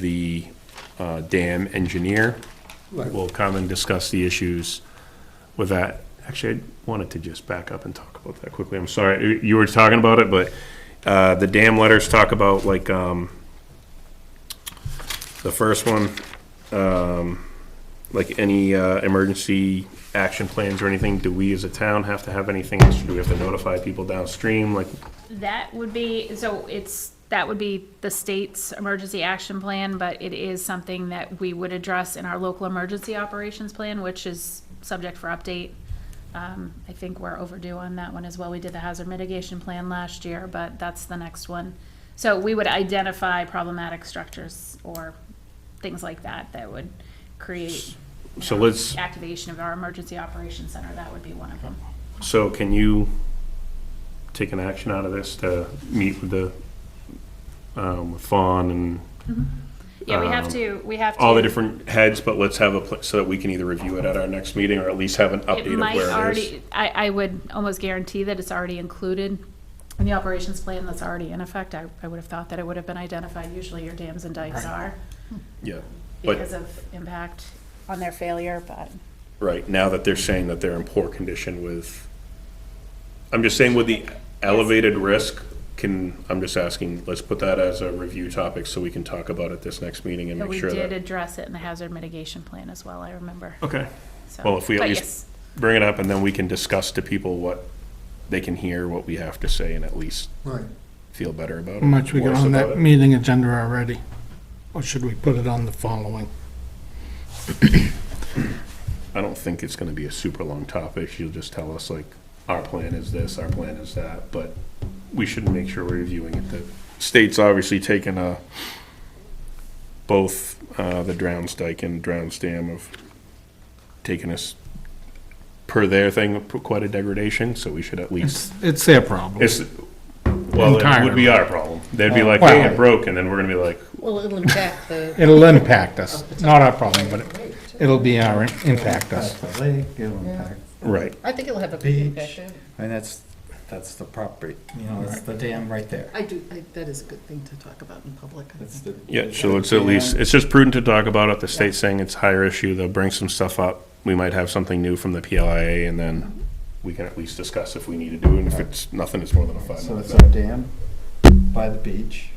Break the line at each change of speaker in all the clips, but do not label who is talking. the uh, dam engineer.
Right.
We'll come and discuss the issues with that. Actually, I wanted to just back up and talk about that quickly. I'm sorry, you were talking about it, but uh, the dam letters talk about like, um, the first one, um, like any uh, emergency action plans or anything, do we as a town have to have anything? Do we have to notify people downstream? Like,
That would be, so it's, that would be the state's emergency action plan, but it is something that we would address in our local emergency operations plan, which is subject for update. Um, I think we're overdue on that one as well. We did the hazard mitigation plan last year, but that's the next one. So we would identify problematic structures or things like that that would create um,
so let's,
activation of our emergency operations center. That would be one of them.
So can you take an action out of this to meet with the, um, with Fawn and
Yeah, we have
Um,
to, we have to.
all the different heads, but let's have a, pla- so that we can either review it at our next meeting or at least have an
It
update of
might
where it is?
already, I, I would almost guarantee that it's already included in the operations plan that's already in effect. I, I would have thought that it would have been identified. Usually your dams and dikes are
Yeah,
because
but,
of impact on their failure, but.
right, now that they're saying that they're in poor condition with, I'm just saying with the elevated risk, can, I'm just asking, let's put that as a review topic so we can talk about it this next meeting and
But
make
we
sure
did
that.
address it in the hazard mitigation plan as well, I remember.
Okay.
So-
Well, if we at
but
least-
yes,
bring it up and then we can discuss to people what they can hear, what we have to say, and at least
Right.
feel better about it.
How much we got
worse
on
about
that
it.
meeting agenda already? Or should we put it on the following?
I don't think it's gonna be a super long topic. You'll just tell us like, our plan is this, our plan is that, but we should make sure we're reviewing it. The state's obviously taken a, both, uh, the Drowns Dyke and Drowns Dam have taken us, per their thing, quite a degradation, so we should at least
It's, it's their problem.
It's, well, it would be
Entirely.
our problem. They'd be like,
Well-
hey, it broke, and then we're gonna be like,
Well, it'll impact the,
It'll impact us, not our problem, but it- it'll be our, impact us.
Impact the lake, it'll impact,
right.
I think it'll have a big
Beach.
impact.
and that's, that's the property, you know, it's the dam right there.
I do, I- that is a good thing to talk about in public. I
That's
think.
the.
Yeah, so it's at least, it's just prudent to talk about it. The state's saying it's higher issue. They'll bring some stuff up. We might have something new from the PLIA, and then we can at least discuss if we need to do it. And if it's nothing, it's more than a five
So
minute.
it's our dam by the beach,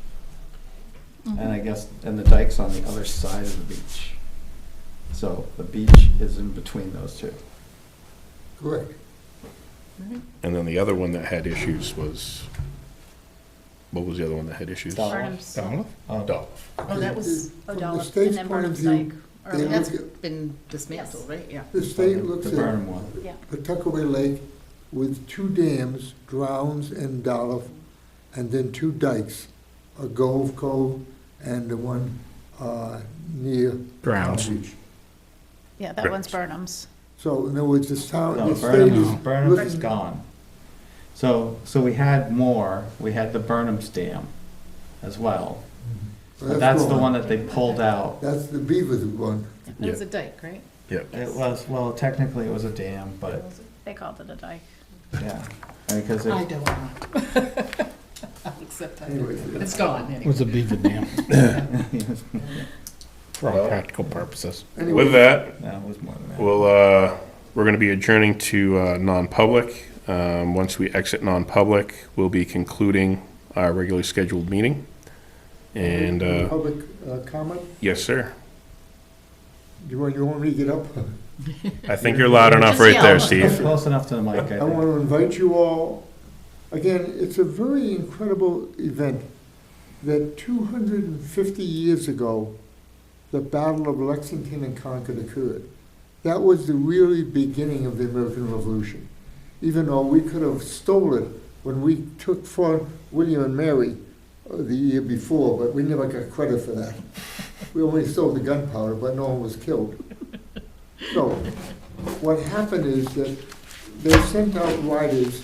and I guess, and the dike's on the other side of the beach. So the beach is in between those two.
Correct.
And then the other one that had issues was, what was the other one that had issues?
Dollar.
Artem's,
Donald?
Oh,
Dolph.
Oh, that was,
From the
O'Donnell, and
state's
then
point of
Burnham's
view,
Dyke. or-
they
that's
look
That's-
at,
been dismantled, right? Yeah.
the state looks
The
at
Burnham one.
Yeah,
Pawtuckaway Lake with two dams, Drowns and Dolph, and then two dikes, a Gove Cove and the one uh, near. Palm
Drowns.
Beach.
yeah, that one's Burnham's.
So in other words, the town,
No,
the state is.
Burnham, Burnham is
looking-
gone. So, so we had more, we had the Burnham's Dam as well. But that's the
gone.
one that they pulled out.
That's the Beavers one.
It was a dike, right?
Yeah.
It was, well, technically it was a dam, but,
They called it a dike.
yeah, because
I
it,
don't know. Except I,
Anyways,
it's gone
It
anyway.
was a beaver dam. For all practical purposes.
anyway,
With that,
no, it was more than that.
Well, uh, we're going to be adjourning to uh, non-public. Um, Once we exit non-public, we'll be concluding our regularly scheduled meeting. And, uh,
Public uh, comment,
yes, sir.
you want, you want me to get up?
I think you're loud enough right there, Steve.
Close enough to the mic, I
I want
think.
to invite you all, again, it's a very incredible event that 250 years ago, the Battle of Lexington and Concord occurred. That was the really beginning of the American Revolution, even though we could have stole it when we took Fort William and Mary uh, the year before, but we never got credit for that. We only stole the gunpowder, but no one was killed. So, what happened is that they sent out riders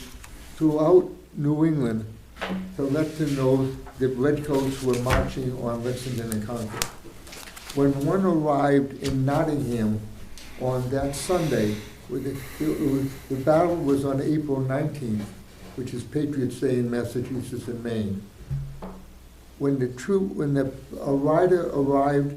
throughout New England to let them know that redcoats were marching on Lexington and Concord. When one arrived in Nottingham on that Sunday, with the, it was- the battle was on April nineteenth, which is Patriots' Day in Massachusetts and Maine. when the troop, when the, a rider arrived